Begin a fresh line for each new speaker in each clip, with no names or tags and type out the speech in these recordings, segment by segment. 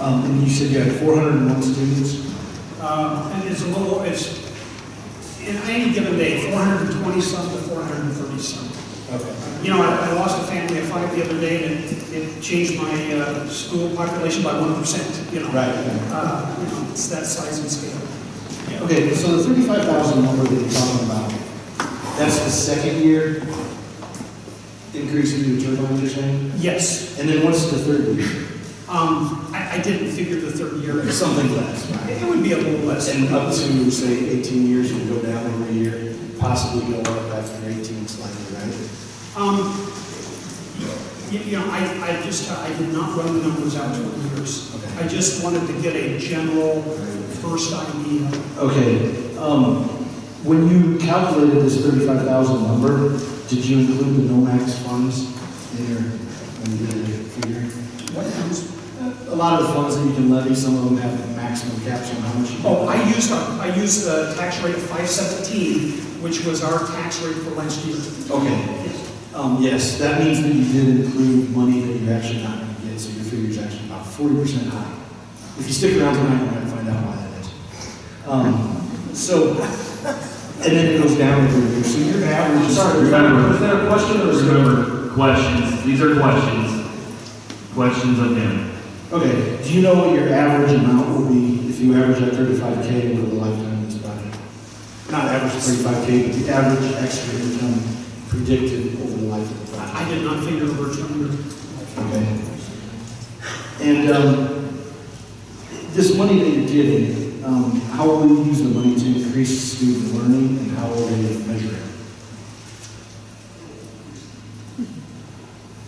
Um, and you said you had four hundred and one students?
Um, And it's a little, it's, in any given day, 420 some to 430 some.
Okay.
You know, I I lost a family of five the other day, and it- it changed my uh, school population by 1%, you know?
Right.
Uh, You know, it's that size and scale.
Okay, so the thirty-five thousand number that you're talking about, that's the second year increase in your turnover, you're saying?
Yes,
And then what's the third year?
Um, I I didn't figure the third year. It
Something less, right?
it would be a little less.
And up to, say, 18 years, you go down every year, possibly go up after 18 slightly, right?
Um, You you know, I, I just, I did not run the numbers out to years.
Okay.
I just wanted to get a general first idea.
Okay, um, when you calculated this 35,000 number, did you include the NOMAX funds in your, in your figure?
What numbers?
A lot of the funds that you can levy, some of them have the maximum caps on how much you can.
Oh, I used, our- I used the tax rate of 517, which was our tax rate for last year.
Okay, um, yes, that means that you did include money that you're actually not gonna get, so your figure's actually about 40% high. If you stick around tonight, you're gonna find out why that is. Um, so, and then it goes down every year, so your average is.
Remember, is that a question or? Remember, questions, these are questions, questions of him.
Okay, do you know what your average amount will be if you average that 35K over the lifetime of this project? Not average 35K, but the average extra income predicted over the life of the project.
I I did not figure the first number.
Okay. And um, this money that you're getting, um, how will you use the money to increase student learning and how will they measure it?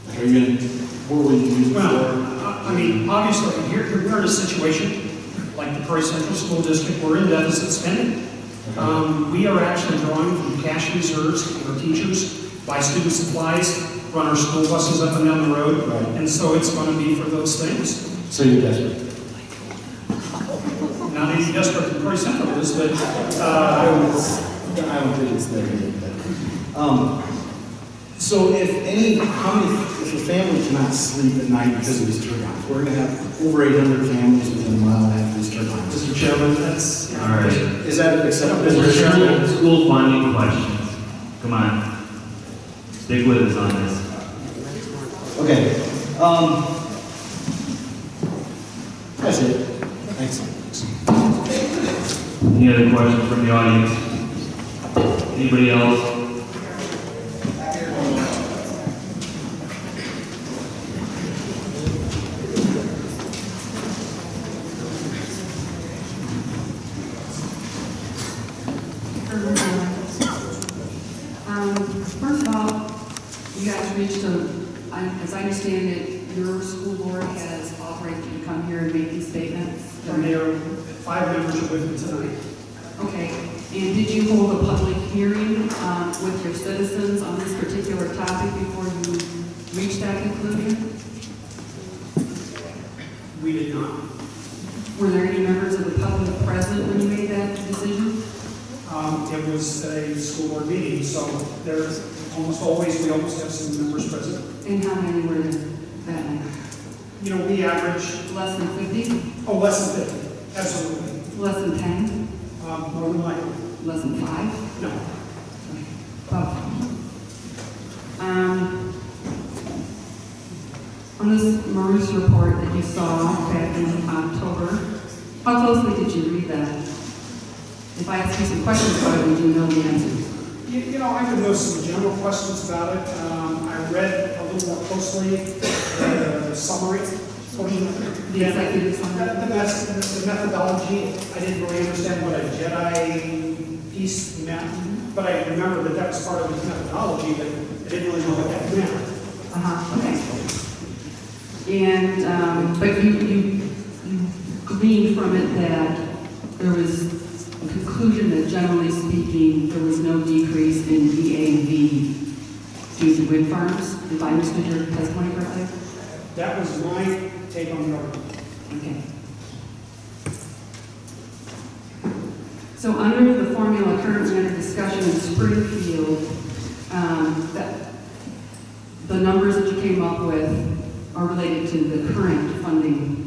Like, Are you going to, what will you use it
Well,
for?
I- I mean, obviously, here, here we're in a situation, like the Prairie Central School District, we're in deficit spending. Um, we are actually drawing from cash reserves for teachers, buy student supplies, run our school buses up and down the road,
Right.
and so it's gonna be for those things.
So you're desperate.
Not any desperate for Prairie Central is, but, uh,
I don't think it's that big, but, um, so if any, how many, if a family cannot sleep at night because of these turbines, we're going to have over 800 families within a mile and a half of these turbines. Mr. Chairman,
that's,
All right.
Is that acceptable?
We're School school funding questions, come on. Stick with us on this.
Okay. Um, that's it. Thanks.
Any other questions from the audience? Anybody else?
Um, First of all, you guys reached a, I- as I understand it, your school board has authorized you to come here and make these statements.
and there are five members are with me tonight.
Okay, and did you hold a public hearing um, with your citizens on this particular topic before you reached that conclusion?
We did not.
Were there any members of the public present when you made that decision?
Um, it was a school board meeting, so there's almost always, we almost have some members present.
And how many were there that night?
You know, we average,
Less than 50?
oh, less than fifty, absolutely.
Less than 10?
Um, more than likely,
Less than 5?
no.
Um, On this MERS report that you saw back in October, how closely did you read that? If I asked you some questions about it, would you know the answers?
You, you know, I would know some general questions about it. Um, I read a little more closely the summary portion of it.
The executive
The,
summary?
the mes- the methodology, I didn't really understand what a Jedi piece
Mm-hmm.
meant, but I remember that that was part of his methodology, but I didn't really know what that meant.
Uh-huh, okay. And, um, but you, you you gleaned from it that there was a conclusion that generally speaking, there was no decrease in DAV due to wind farms, if I understood your testimony correctly?
That was my take on the argument.
Okay. So under the formula currently under discussion in Springfield, um, that, the numbers that you came up with are related to the current funding